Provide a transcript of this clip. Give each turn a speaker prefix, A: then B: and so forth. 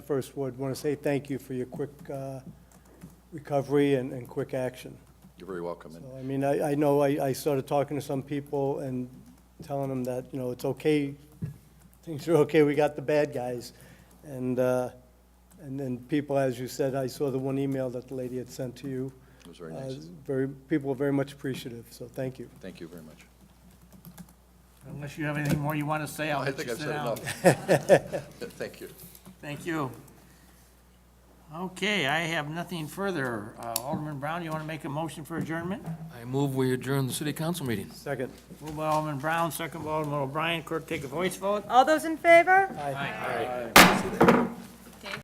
A: first would want to say thank you for your quick uh, recovery and, and quick action.
B: You're very welcome. And
A: So, I mean, I, I know I, I started talking to some people and telling them that, you know, it's okay, things are okay, we got the bad guys. And, uh, and then people, as you said, I saw the one email that the lady had sent to you.
B: it was very
A: Uh,
B: nice.
A: Very, people are very much appreciative, so thank you.
B: Thank you very much.
C: Unless you have anything more you want to say, I'll
B: I
C: let
B: think
C: you
B: I've
C: sit
B: said
C: down.
B: enough. Thank you.
C: Thank you. Okay, I have nothing further. Uh, Alderman Brown, you want to make a motion for adjournment?
D: I move we adjourn the city council meeting.
A: Second.
C: Moved by Alderman Brown, second by Alderman O'Brien. Clerk, take a voice vote.
E: All those in favor?